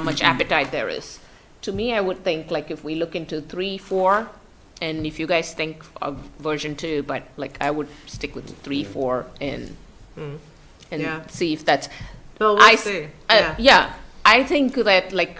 how much appetite there is. To me, I would think, like, if we look into three, four, and if you guys think of version two, but like, I would stick with three, four, and, Mm. Yeah. and see if that's. Well, I we'll s- see. I- Yeah. Yeah, I think that, like,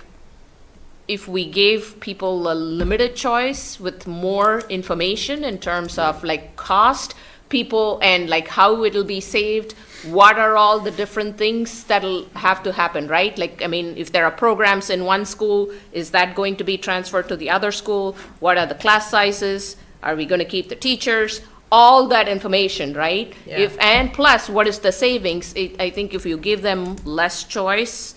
if we gave people a limited choice with more information in terms of like cost, people and like how it'll be saved, what are all the different things that'll have to happen, right? Like, I mean, if there are programs in one school, is that going to be transferred to the other school? What are the class sizes? Are we gonna keep the teachers? All that information, right? Yeah. If, and plus, what is the savings? It, I think if you give them less choice,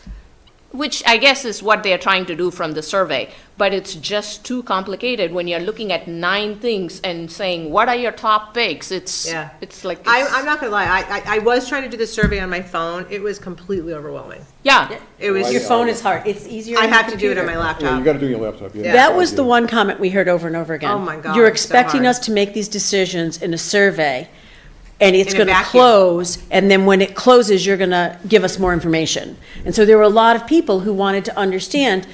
which I guess is what they're trying to do from the survey, but it's just too complicated when you're looking at nine things and saying, what are your top picks? It's, Yeah. it's like, I, it's- I'm not gonna lie, I, I, I was trying to do the survey on my phone, it was completely overwhelming. yeah, It was, Your I phone is hard. It's easier. on your have to do it on my computer. laptop. Yeah, you gotta do it on your laptop. yeah. That I Yeah. That was the do. one comment we heard over and over again. Oh my God, You're so expecting hard. us to make these decisions in a survey, and it's In a going to vacuum. close, and then when it closes, you're going to give us more information. And so there were a lot of people who wanted to understand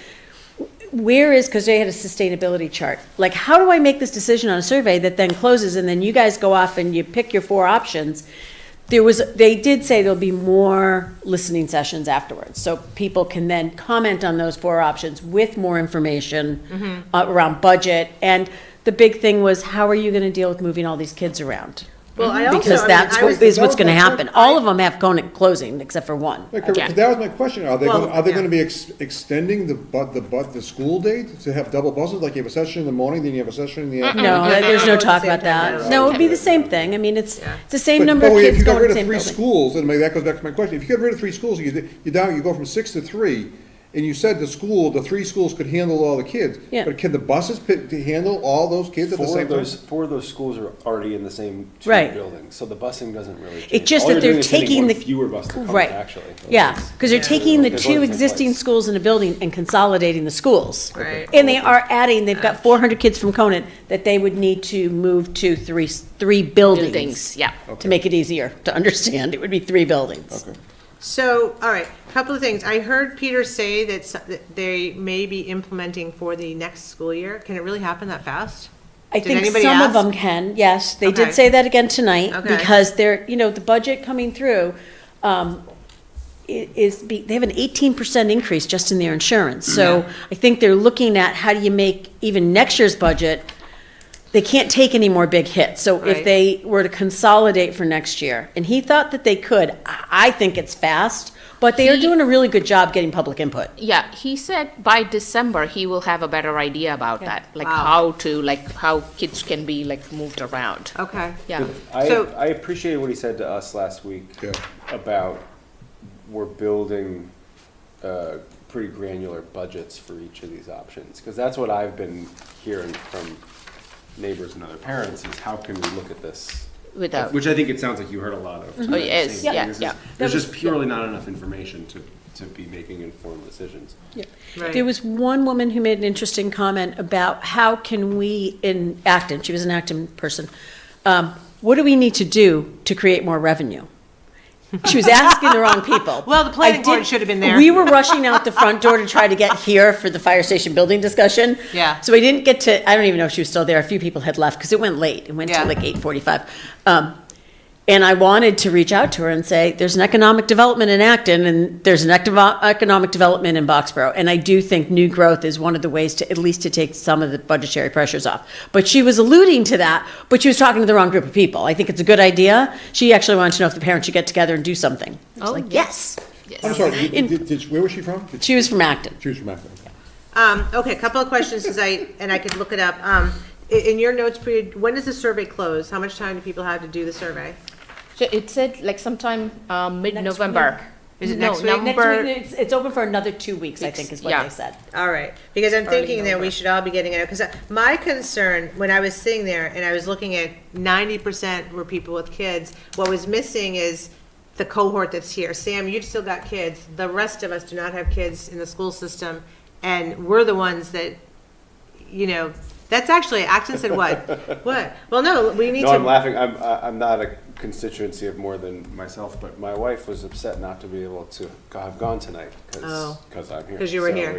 where is, because they had a sustainability chart. Like, how do I make this decision on a survey that then closes, and then you guys go off and you pick your four options? There was, they did say there'll be more listening sessions afterwards, so people can then comment on those four options with more Mm-hmm. information uh, around budget. And the big thing was, how are you gonna deal with moving all these kids around? Well, I also- I Because mean, that's I what, was- is what's gonna Well, that's happen. All of them have Conant closing, except for one. Yeah, correct. Yeah. 'Cause that was my question, are they, gonna- Well, are they yeah. gonna be ex- extending the bu, the bu, the school date to have double buses? Like you have a session in the morning, then you have a session in the afternoon? No, there's no At the talk same about time, no. that. No, it'd be the same thing. I mean, it's, it's the same But- number of but kids going to the If you got rid of same three building. schools, and maybe that goes back to my question, if you got rid of three schools, you, you down, you go from six to three, and you said the school, the three schools could handle all the kids. Yeah. But can the buses pick, to handle all those kids at the Four same of time? those, four of those schools are already in the same two Right. buildings, so the busing doesn't really change. just All that you're they're doing is sending taking one the- Fewer bus to come, Right. actually. Yeah, because they're taking the There's only two ten existing places. schools in a building and consolidating the schools. Right. And they are adding, they've got four hundred kids from Conant that they would need to move to three, three buildings, buildings. yeah. To make it easier to understand, it would be three buildings. Okay. So, all right, couple of things. I heard Peter say that s- that they may be implementing for the next school year. Can it really happen that fast? I Did think anybody some ask? of them can, yes, they Okay. did say that again tonight, Okay. because they're, you know, the budget coming through, um, i- is, be- they have an eighteen percent increase just in their insurance, so I think they're looking at how do you make even next year's budget, they can't take any more big hits, so if Right. they were to consolidate for next year, and he thought that they could, I, I think it's fast, but they are He- doing a really good job getting public input. Yeah, he said by December, he will have a better idea about that, like Wow. how to, like how kids can be like moved around. Okay. Yeah, I, So- I appreciated what he said to us last week Yeah. about we're building uh, pretty granular budgets for each of these options because that's what I've been hearing from neighbors and other parents is how can we look at this. Without- Which I think it sounds like you heard a lot of. Oh, yes, Same thing. yeah, This is- yeah. There's just purely not enough information to, to be making informed decisions. Right. There was one woman who made an interesting comment about how can we in Acton, she was an Acton person, um, what do we need to do to create more revenue? She was asking the wrong people. Well, the planning I board did- should have been there. We were rushing out the front door to try to get here for the fire station building discussion. Yeah. So I didn't get to, I don't even know if she was still there. A few people had left because it went late. It went Yeah. till like 8:45. Um, and I wanted to reach out to her and say, there's an economic development in Acton and there's an active economic development in Boxborough. And I do think new growth is one of the ways to, at least to take some of the budgetary pressures off. But she was alluding to that, but she was talking to the wrong group of people. I think it's a good idea. She actually wanted to know if the parents should get together and do something. I was Oh, like, yes. yes. I'm sorry, did- did, did, where was she from? Did She was from Acton. She was from Akron. Um, okay, a couple of questions, because I, and I could look it up. Um, i- in your notes, Peter, when does the survey close? How much time do people have to do the survey? So it said like sometime uh, mid-November. Is it No, next week? Next November- it's, it's open for another two weeks, I Weeks, think is what yeah. they said. All right, because I'm thinking that we November. should all be getting it, because my concern, when I was sitting there and I was looking at ninety percent were people with kids, what was missing is the cohort that's here. Sam, you've still got kids, the rest of us do not have kids in the school system, and we're the ones that, you know, that's actually, Acton said what? What? Well, no, we need to. No, I'm laughing. I'm, I- I'm not a constituency of more than myself, but my wife was upset not to be able to have gone tonight Oh. because, because I'm here. Because Oh. you were So here.